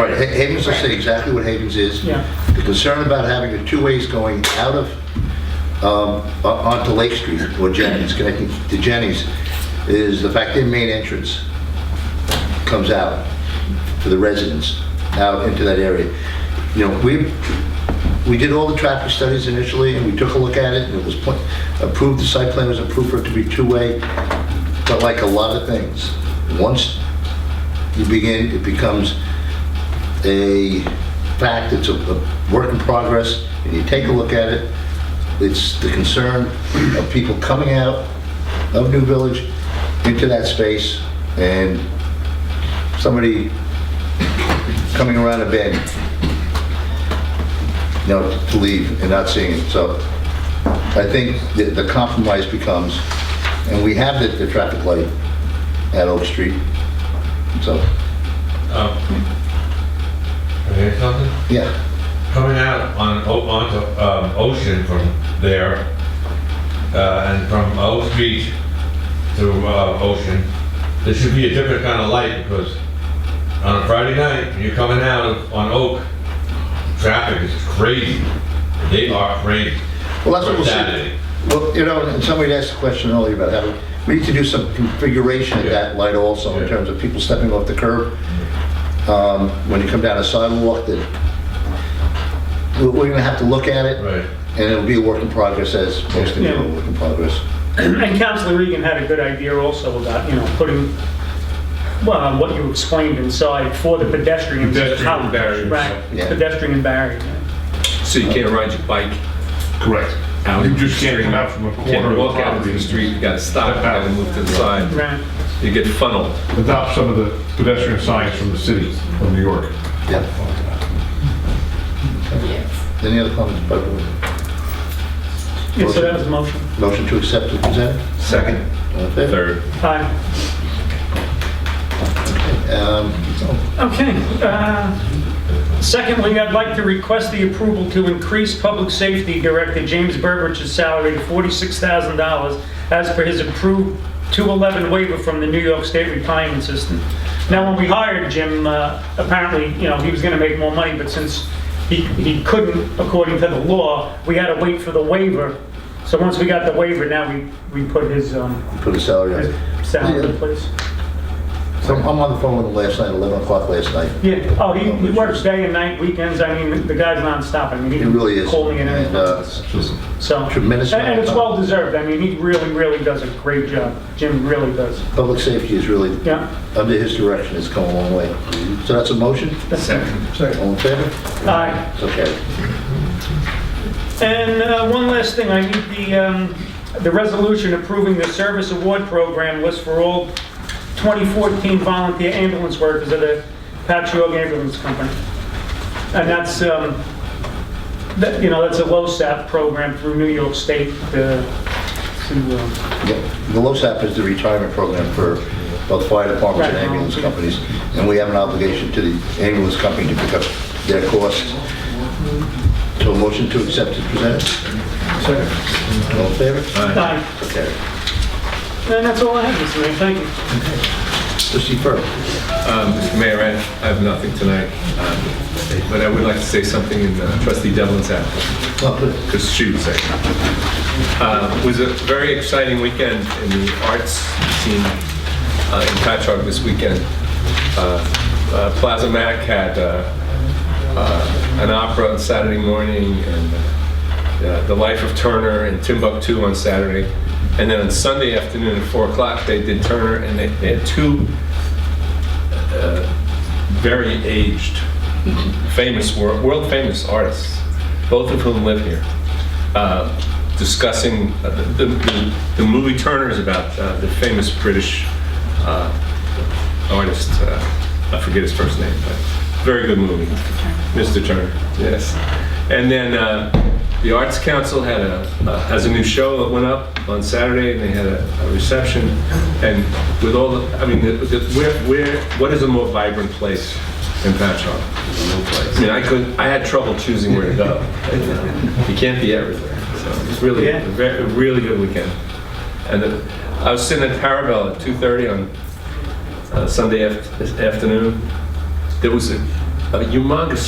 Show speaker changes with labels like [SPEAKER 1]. [SPEAKER 1] Right, Ha- Havens will say exactly what Havens is.
[SPEAKER 2] Yeah.
[SPEAKER 1] The concern about having the two ways going out of, um, o- onto Lake Street or Jennings, connecting to Jennings, is the fact their main entrance comes out for the residents out into that area. You know, we, we did all the traffic studies initially, and we took a look at it, and it was pla- approved, the site plan was approved for it to be two-way, but like a lot of things, once you begin, it becomes a fact, it's a, a work in progress, and you take a look at it, it's the concern of people coming out of New Village into that space, and somebody coming around a bend, you know, to leave and not seeing it, so I think the, the compromise becomes, and we have the, the traffic light at Oak Street, so,
[SPEAKER 3] Um, can I hear something?
[SPEAKER 1] yeah.
[SPEAKER 3] Coming out on, O- onto um, Ocean from there, uh, and from O Street to uh, Ocean, there should be a different kind of light because on a Friday night, when you're coming out of, on Oak, traffic is crazy. They are crazy.
[SPEAKER 1] Well, that's what we'll
[SPEAKER 3] For Saturday.
[SPEAKER 1] see. Well, you know, and somebody asked a question earlier about having, we need to do some configuration of that light also in
[SPEAKER 3] Yeah.
[SPEAKER 1] terms of people stepping off the curb. Um, When you come down a sidewalk, that, we're we're gonna have to look at it.
[SPEAKER 3] Right.
[SPEAKER 1] And it'll be a work in progress as most things are a work in progress.
[SPEAKER 2] And Councilor Regan had a good idea also about, you know, putting, well, what you explained inside for the pedestrians.
[SPEAKER 4] Pedestrian
[SPEAKER 2] How-
[SPEAKER 4] barriers.
[SPEAKER 2] Right,
[SPEAKER 1] Yeah.
[SPEAKER 2] pedestrian barrier.
[SPEAKER 4] So you can't ride your bike
[SPEAKER 5] Correct.
[SPEAKER 4] out.
[SPEAKER 5] You just can't come out from a corner
[SPEAKER 4] Can't
[SPEAKER 5] of
[SPEAKER 4] walk out into
[SPEAKER 5] property
[SPEAKER 4] the street, you gotta stop, you gotta move to the side.
[SPEAKER 2] Right.
[SPEAKER 4] You get funneled.
[SPEAKER 5] Adopt some of the pedestrian signs from the city of New York.
[SPEAKER 1] Yeah. Any other comments? by the board?
[SPEAKER 2] Yeah, so that was the motion.
[SPEAKER 1] Motion to accept as presented?
[SPEAKER 4] Second.
[SPEAKER 1] All in favor?
[SPEAKER 4] Third.
[SPEAKER 2] Aye.
[SPEAKER 1] Um,
[SPEAKER 2] Okay. uh, Secondly, I'd like to request the approval to increase Public Safety Director James Burbidge's salary to $46,000 as per his approved 211 waiver from the New York State Retirement System. Now, when we hired Jim, uh, apparently, you know, he was going to make more money, but since he he couldn't, according to the law, we had to wait for the waiver. So once we got the waiver, now we we put his um,
[SPEAKER 1] Put a salary
[SPEAKER 2] his
[SPEAKER 1] on.
[SPEAKER 2] salary in place.
[SPEAKER 1] So I'm on the phone with him last night, 11 o'clock last night.
[SPEAKER 2] Yeah, oh, he, he works day and night, weekends, I mean, the guy's nonstop, I mean, he
[SPEAKER 1] He really is.
[SPEAKER 2] Calling and
[SPEAKER 1] And, uh,
[SPEAKER 2] everything, so.
[SPEAKER 1] tremendous
[SPEAKER 2] And and it's
[SPEAKER 1] amount
[SPEAKER 2] well
[SPEAKER 1] of
[SPEAKER 2] deserved, I mean, he really, really does a great job, Jim really does,
[SPEAKER 1] Public safety is really,
[SPEAKER 2] yeah.
[SPEAKER 1] under his direction, has come a long way. So that's a motion?
[SPEAKER 2] Second.
[SPEAKER 1] All in favor?
[SPEAKER 2] Aye.
[SPEAKER 1] It's okay.
[SPEAKER 2] And uh, one last thing, I need the, um, the resolution approving the service award program list for all 2014 volunteer ambulance workers of the Patchogue Ambulance Company. And that's, um, that, you know, that's a LoSAP program through New York State uh, to, uh,
[SPEAKER 1] Yeah, The LoSAP is the retirement program for both fire departments and
[SPEAKER 2] Right.
[SPEAKER 1] ambulance companies, and we have an obligation to the ambulance company to pick up their costs. So a motion to accept is presented. Second. All in favor?
[SPEAKER 2] Aye.
[SPEAKER 1] Okay.
[SPEAKER 2] and that's all I have this evening, thank you.
[SPEAKER 1] Trustee Fur,
[SPEAKER 4] Um, Mr. Mayor, I I have nothing tonight, um, but I would like to say something in uh, trustee Devlin's absence.
[SPEAKER 1] Oh, good.
[SPEAKER 4] because she was there. Uh, It was a very exciting weekend in the arts scene uh, in Patchogue this weekend. Uh, uh, Plaza Mac had uh, uh, an opera on Saturday morning, and uh, The Life of Turner and Timbuktu on Saturday. And then on Sunday afternoon at 4 o'clock, they did Turner, and they they had two uh, very aged famous, wor- world-famous artists, both of whom live here, uh, discussing, uh, the, the, the movie Turner is about uh, the famous British uh, artist, uh, I forget his first name, but very good movie. Mr. Turner, yes. And then uh, the Arts Council had a, uh, has a new show that went up on Saturday, and they had a a reception, and with all, the I mean, the- the- where, where, what is a more vibrant place in Patchogue? I mean, I could, I had trouble choosing where to go. You can't be everywhere, so it's really,
[SPEAKER 2] Yeah.
[SPEAKER 4] a ve- a really good weekend. And the- I was sitting at Parabel at 2:30 on uh, Sunday aft- afternoon. There was a a humongous